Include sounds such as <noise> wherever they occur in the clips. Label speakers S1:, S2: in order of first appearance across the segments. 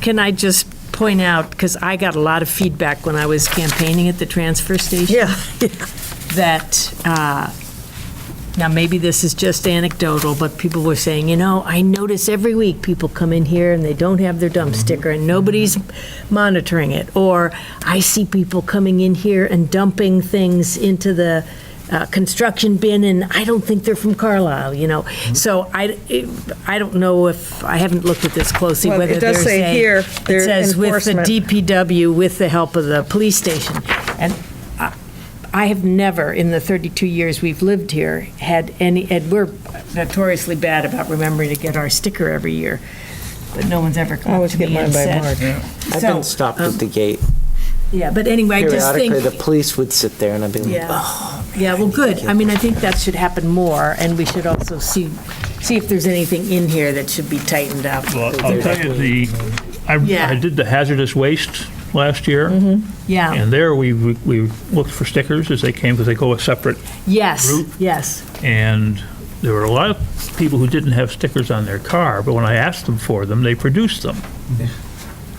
S1: can I just point out, because I got a lot of feedback when I was campaigning at the transfer station?
S2: Yeah.
S1: that, uh, now maybe this is just anecdotal, but people were saying, you know, I notice every week people come in here and they don't have their
S2: Mm-hmm.
S1: dump sticker and nobody's monitoring it. Or I see people coming in here and dumping things into the uh, construction bin and I don't think they're from Carlisle, you know?
S2: Mm-hmm.
S1: So I, it- I don't know if, I haven't looked at this closely,
S2: Well, it
S1: whether
S2: does
S1: there's
S2: say
S1: a-
S2: here, their
S1: It says with the
S2: enforcement.
S1: DPW, with the help of the police station. And I have never, in the 32 years we've lived here, had any, and we're notoriously bad about remembering to get our sticker every year, but no one's ever
S2: I
S1: come up
S2: always
S1: to
S2: get
S1: me
S2: mine
S1: and
S2: by March.
S1: said.
S3: I've
S1: So,
S3: been stopped at the gate.
S1: Yeah, but anyway, I just think.
S3: Periodically, the police would sit there and I'd be like,
S1: Yeah.
S3: oh.
S1: Yeah, well, good. I mean, I think that should happen more, and we should also see, see if there's anything in here that should be tightened up.
S4: Well, I'll tell you, the, I,
S1: Yeah. Mm-hmm.
S4: I did the hazardous waste last year,
S1: Yeah,
S4: and there we, we looked for stickers as they came, because they go a separate,
S1: yes,
S4: Root.
S1: yes.
S4: and there were a lot of people who didn't have stickers on their car, but when I asked them for them, they produced them.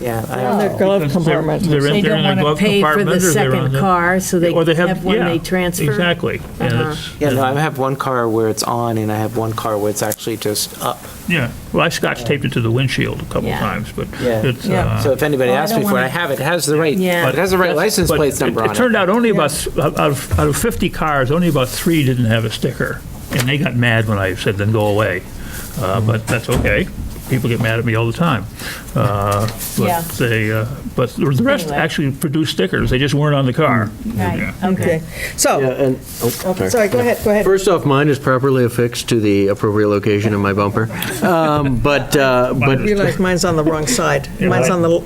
S3: Yeah, I-
S2: On their glove
S4: Because they're-
S2: compartment.
S4: they're in-
S1: Oh, They
S4: they're
S1: don't
S4: in their
S1: want to
S4: glove
S1: pay for the
S4: compartment, or they're on
S1: second
S4: the-
S1: car, so they
S4: Or
S1: have one
S4: yeah,
S1: they transfer.
S4: Exactly. And
S1: Uh-huh.
S4: it's-
S3: yeah, no, I have one car where it's on and I have one car where it's actually just up.
S4: Yeah, well, I scotch taped it to the windshield a couple
S1: Yeah.
S4: times, but
S3: Yeah.
S4: it's.
S2: Yeah.
S4: uh,
S3: So if anybody
S1: Well, Oh, I
S3: asks
S1: don't
S3: me for it,
S1: wanna-
S3: I have it, it has the right,
S1: Yeah.
S3: it has the right license
S4: but
S3: plate
S4: it-
S3: number on
S4: It
S3: it.
S4: turned out only about, th- out of, out of 50 cars, only about three didn't have a sticker. And they got mad when I said, then go away. Uh, But that's okay. People get mad at me all the time. Uh,
S1: Yeah.
S4: But they, uh, but the rest
S1: Anyway. Mm.
S4: actually produced stickers, they just weren't on the car. Yeah.
S1: Right, okay.
S2: Okay, so,
S5: and.
S2: oh, sorry, go ahead, go ahead.
S5: First off, mine is properly affixed to the appropriate location in my bumper. Um, But, uh, but,
S2: Realize mine's on the wrong side. Mine's on the,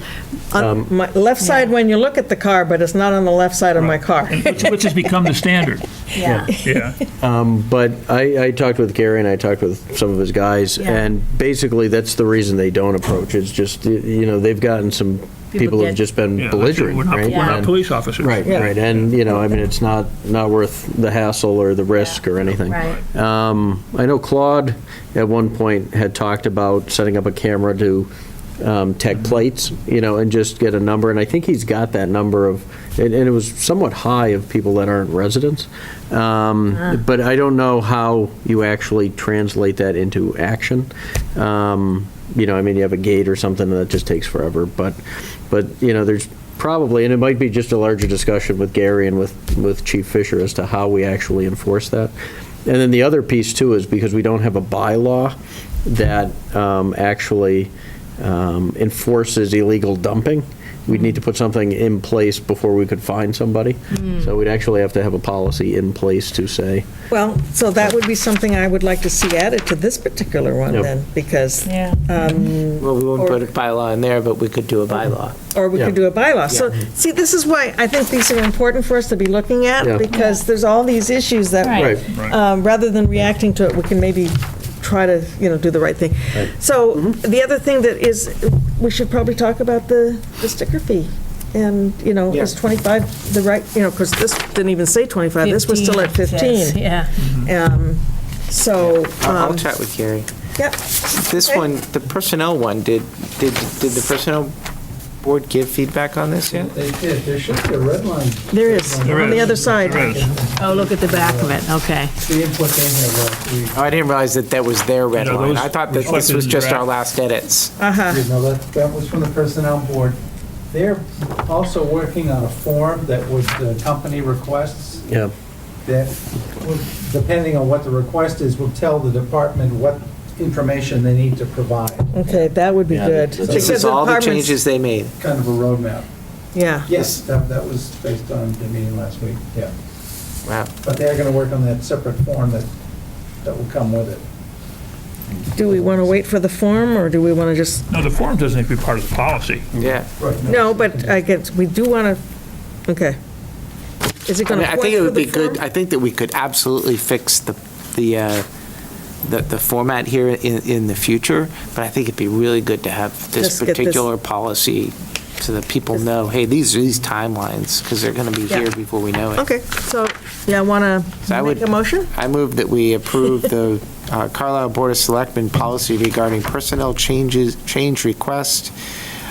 S2: on my left side when you look at the car, but it's not on the left side of my car.
S4: And Which which has become the standard.
S1: Yeah. <laughs>
S4: Yeah.
S5: but I, I talked with Gary and I talked with some of his guys,
S1: Yeah.
S5: and basically, that's the reason they don't approach. It's just, you know, they've gotten some, people
S1: get-
S5: have just been
S4: Yeah.
S5: belligerent,
S4: We're not-
S5: right?
S4: We're not
S5: And-
S4: police officers.
S5: Right,
S2: Yeah.
S5: right, and, you know, I mean, it's not, not worth the hassle or the risk or anything.
S1: Right.
S5: Um, I know Claude at one point had talked about setting up a camera to um, tech plates, you know, and just get a number, and I think he's got that number of, and and it was somewhat high of people that aren't residents. Um, But I don't know how you actually translate that into action. Um, You know, I mean, you have a gate or something, and that just takes forever, but, but, you know, there's probably, and it might be just a larger discussion with Gary and with, with Chief Fisher as to how we actually enforce that. And then the other piece too is because we don't have a bylaw that um, actually um, enforces illegal dumping, we'd need to put something in place before we could find somebody. So we'd actually have to have a policy in place to say,
S2: Well, so that would be something I would like to see added to this particular one
S5: Yep.
S2: then, because,
S1: Yeah.
S2: Uh,
S3: Well, we wouldn't put a bylaw in there, but we could do a
S1: Um,
S3: bylaw.
S2: or we
S5: Yeah.
S2: could do a bylaw. So, see, this is why I think these are important for us to be looking
S5: Yeah.
S2: at, because there's all these issues that
S1: Right.
S5: right,
S2: um, rather than reacting to it, we can maybe try to, you know, do the right thing. So the other thing that is, we should probably talk about the the sticker fee. And, you know, is
S3: Yeah.
S2: 25 the right, you know, because this didn't even say 25, this was still at 15.
S1: Yeah.
S2: Um, So,
S3: I'll I'll
S2: um,
S3: chat with Gary.
S2: yeah,
S3: This
S2: Okay.
S3: one, the personnel one, did, did, did the personnel board give feedback on this yet?
S6: They did, there should be a red line.
S2: there is,
S4: There
S2: on the
S4: is.
S2: other side.
S4: There is.
S1: Oh, look at the back of it, okay.
S6: The input they had last week,
S3: Oh, I didn't realize that that was their red
S4: No,
S3: line.
S4: those
S3: I thought that this
S4: reflected
S3: was
S4: in the
S3: just our
S4: draft.
S3: last edits.
S2: Uh-huh,
S6: you know, that, that was from the personnel board. They're also working on a form that would, the company requests,
S5: yeah.
S6: that, would- depending on what the request is, will tell the department what information they need to provide,
S2: okay, that would be
S5: Yeah,
S2: good.
S5: that's-
S6: Because
S3: This is
S2: the
S3: all the
S2: apartments-
S3: changes they made.
S6: kind of a roadmap.
S2: Yeah,
S6: Yes, that, that was based on the meeting last week, yeah.
S3: Wow.
S6: But they're gonna work on that separate form that, that will come with it.
S2: do we want to wait for the form, or do we want to just,
S4: No, the form doesn't have to be part of the policy.
S3: Yeah.
S6: Right,
S2: no, but I guess, we do want to, okay. Is it
S3: I
S2: going
S3: mean,
S2: to
S3: I
S2: point
S3: think it
S2: to
S3: would
S2: the
S3: be
S2: form?
S3: good, I think that we could absolutely fix the, the, uh, the, the format here in, in the future, but I think it'd be really good to have
S2: Just
S3: this
S2: get this-
S3: particular policy so that people know, hey, these are these timelines, because they're going to be
S2: Yeah.
S3: here before we know it.
S2: Okay, so, yeah, I want
S3: So I
S2: to
S3: would-
S2: make a motion?
S3: I move that we
S2: <laughs>
S3: approve the uh, Carlisle Board of Selectmen policy regarding personnel changes, change request